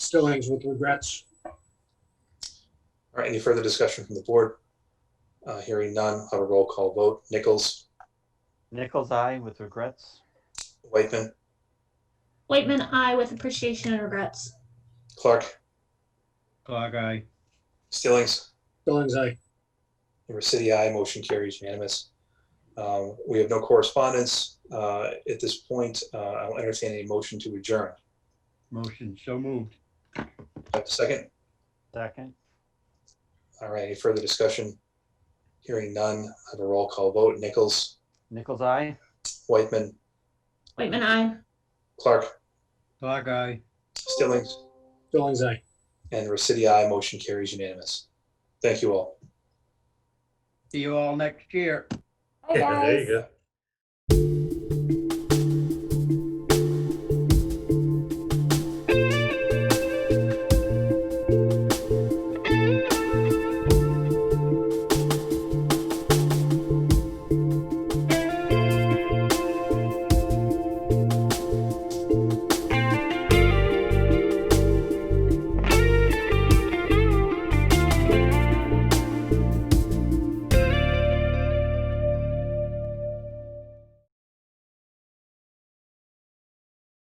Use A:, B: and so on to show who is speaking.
A: still ends with regrets.
B: All right, any further discussion from the board? Uh, Hearing none, I'll have a roll call vote. Nichols,
C: Nichols eye with regrets.
B: Whitman,
D: Whitman, I with appreciation and regrets.
B: Clark,
E: Clark, aye.
B: Stillings,
A: Still ends I.
B: Recity, aye. Motion carries unanimous. Um, We have no correspondence. Uh, At this point, uh, I'll entertain a motion to adjourn.
E: Motion so moved.
B: Have a Second,
C: Second,
B: all right, any further discussion? Hearing none, I have a roll call vote. Nichols,
C: Nichols eye.
B: Whitman,
D: Whitman, I.
B: Clark,
E: Clark, aye.
B: Stillings,
A: Still ends I.
B: and Recity, aye. Motion carries unanimous. Thank you all.
E: See you all next year.
F: Hi, guys.
G: There you go.